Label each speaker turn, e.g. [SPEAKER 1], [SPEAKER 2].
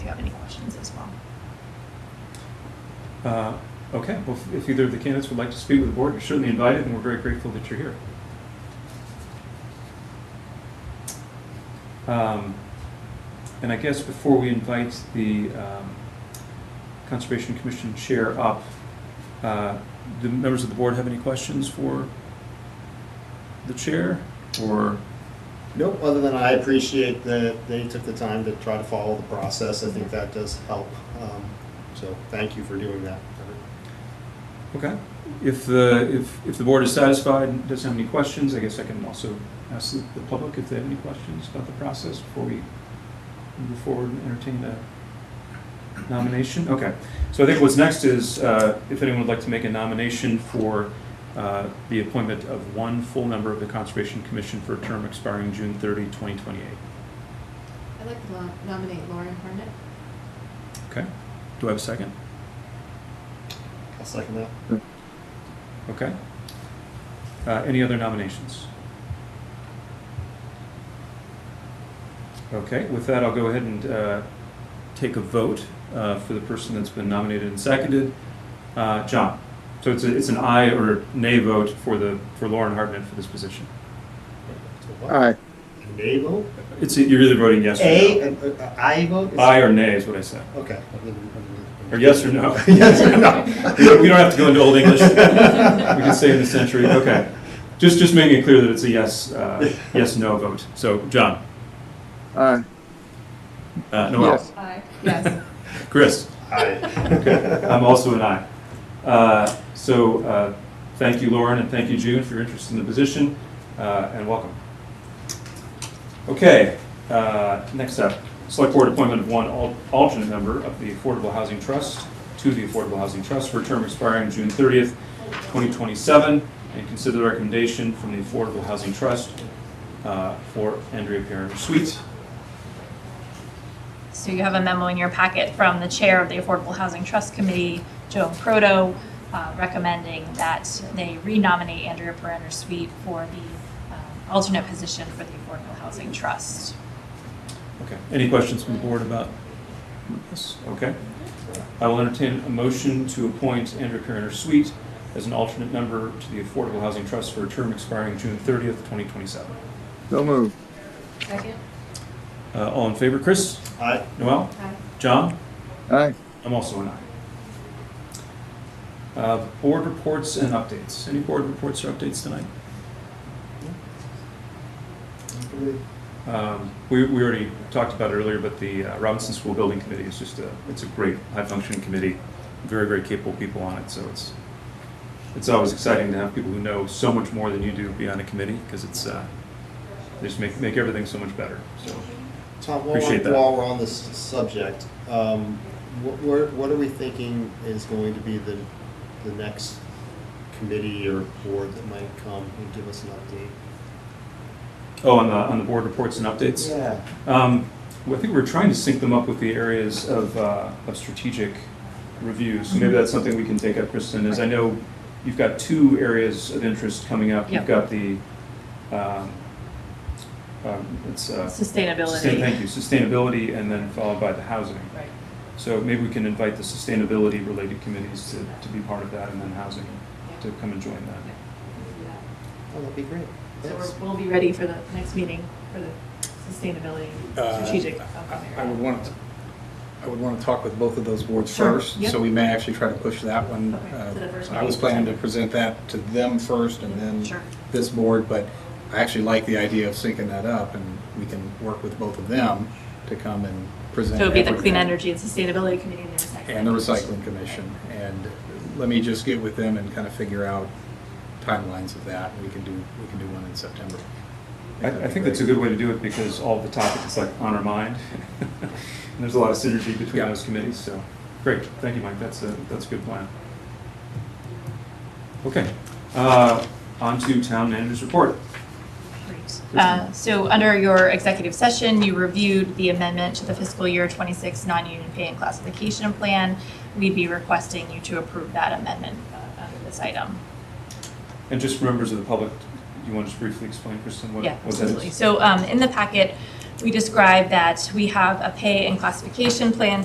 [SPEAKER 1] Uh, Okay, well, if- if either of the candidates would like to speak with the board, you're certainly invited, and we're very grateful that you're here. Um, And I guess before we invite the um, Conservation Commission Chair up, uh, do members of the board have any questions for the Chair? Or,
[SPEAKER 2] Nope, other than I appreciate that they took the time to try to follow the process. I think that does help. Um, So thank you for doing that.
[SPEAKER 1] okay, if the, if, if the board is satisfied and doesn't have any questions, I guess I can also ask the- the public if they have any questions about the process before we move forward and entertain the nomination. Okay, so I think what's next is, uh, if anyone would like to make a nomination for uh, the appointment of one full member of the Conservation Commission for a term expiring June 30, 2028.
[SPEAKER 3] I'd like to lo- nominate Lauren Harnett.
[SPEAKER 1] Okay, do I have a second?
[SPEAKER 2] I'll second that.
[SPEAKER 1] Okay. Uh, Any other nominations? Okay, with that, I'll go ahead and uh, take a vote uh, for the person that's been nominated and seconded. Uh, John, so it's, a- it's an aye or nay vote for the, for Lauren Hartnett for this position.
[SPEAKER 4] Aye.
[SPEAKER 2] A Nay vote?
[SPEAKER 1] It's, you're either voting yes
[SPEAKER 2] A,
[SPEAKER 1] or
[SPEAKER 2] an- a- a I vote? is-
[SPEAKER 1] no. Aye or nay is what I said.
[SPEAKER 2] Okay.
[SPEAKER 1] Or yes or no.
[SPEAKER 2] Yes or no?
[SPEAKER 1] We don't we don't have to go into Old English. We can say in the century, okay. Just, just making it clear that it's a yes, uh, yes, no vote. So, John,
[SPEAKER 4] Aye.
[SPEAKER 1] uh, Noel?
[SPEAKER 4] Yes.
[SPEAKER 3] Aye. Yes.
[SPEAKER 1] Chris?
[SPEAKER 2] Aye.
[SPEAKER 1] I'm also an aye. Uh, So uh, thank you, Lauren, and thank you, June, for your interest in the position, uh, and welcome. Okay, uh, next up, Select Board appointment of one al- alternate member of the Affordable Housing Trust to the Affordable Housing Trust for a term expiring June 30th, 2027, and consider the recommendation from the Affordable Housing Trust uh, for Andrea Perrin Sweet.
[SPEAKER 5] So you have a memo in your packet from the chair of the Affordable Housing Trust Committee, Joan Proto, uh, recommending that they renominate Andrea Perenner Sweet for the um, alternate position for the Affordable Housing Trust.
[SPEAKER 1] Okay, any questions from the board about this? Okay. I will entertain a motion to appoint Andrew Perrin Sweet as an alternate member to the Affordable Housing Trust for a term expiring June 30th, 2027.
[SPEAKER 4] So moved.
[SPEAKER 3] Second?
[SPEAKER 1] Uh, All in favor, Chris?
[SPEAKER 2] Aye.
[SPEAKER 1] Noel?
[SPEAKER 3] Aye.
[SPEAKER 1] John?
[SPEAKER 4] Aye.
[SPEAKER 1] I'm also an aye. Uh, Board reports and updates. Any board reports or updates tonight? Um, We, we already talked about it earlier, but the uh, Robinson School Building Committee is just a, it's a great, high-functioning committee, very, very capable people on it, so it's, it's always exciting to have people who know so much more than you do be on a committee, because it's, uh, they just make, make everything so much better, so.
[SPEAKER 2] Tom, while
[SPEAKER 1] Appreciate that.
[SPEAKER 2] we're, while we're on this subject, um, what, we're- what are we thinking is going to be the, the next committee or board that might come and give us an update?
[SPEAKER 1] Oh, on the, on the board reports and updates?
[SPEAKER 2] Yeah.
[SPEAKER 1] Um, well, I think we're trying to sync them up with the areas of, uh, of strategic review, so maybe that's something we can take up, Kristen, is I know you've got two areas of interest coming up.
[SPEAKER 5] Yep.
[SPEAKER 1] You've got the, um, um, it's, uh. sustain-
[SPEAKER 5] Sustainability.
[SPEAKER 1] Thank you, sustainability, and then followed by the housing.
[SPEAKER 5] Right.
[SPEAKER 1] So maybe we can invite the sustainability-related committees to, to be part of that, and then housing to come and join that.
[SPEAKER 2] Oh, that'd be great.
[SPEAKER 3] So
[SPEAKER 2] Thanks.
[SPEAKER 3] we're- we'll be ready for the next meeting for the sustainability
[SPEAKER 6] Uh,
[SPEAKER 3] strategic.
[SPEAKER 6] I- I would want to, I would want to talk with both of those boards
[SPEAKER 3] Sure,
[SPEAKER 6] first,
[SPEAKER 3] yep.
[SPEAKER 6] so we may actually try to push that one.
[SPEAKER 3] Okay,
[SPEAKER 6] uh,
[SPEAKER 3] to the first
[SPEAKER 6] I was
[SPEAKER 3] meeting.
[SPEAKER 6] planning to present that to them first and
[SPEAKER 5] Sure.
[SPEAKER 6] then this board, but I actually like the idea of syncing that up, and we can work with both of them to come and
[SPEAKER 5] So
[SPEAKER 6] present.
[SPEAKER 5] it would be the
[SPEAKER 6] everything.
[SPEAKER 5] Clean Energy and Sustainability Committee and the Recycling.
[SPEAKER 6] And the recycling commission, and let me just get with them and kind of figure out timelines of that, we can do, we can do one in September.
[SPEAKER 1] I, I think that's a good way to do it because all the topics is like on our mind. And there's a lot of synergy between
[SPEAKER 6] Yeah.
[SPEAKER 1] those committees, so, great, thank you, Mike, that's a, that's a good plan. Okay, uh, on to town manager's report.
[SPEAKER 5] Great. Uh, So under your executive session, you reviewed the amendment to the fiscal year 26 non-union pay and classification plan. We'd be requesting you to approve that amendment uh, under this item.
[SPEAKER 1] And just for members of the public, you want to just briefly explain, Kristen, what,
[SPEAKER 5] Yeah,
[SPEAKER 1] what that
[SPEAKER 5] absolutely.
[SPEAKER 1] is?
[SPEAKER 5] So um, in the packet, we describe that we have a pay and classification plan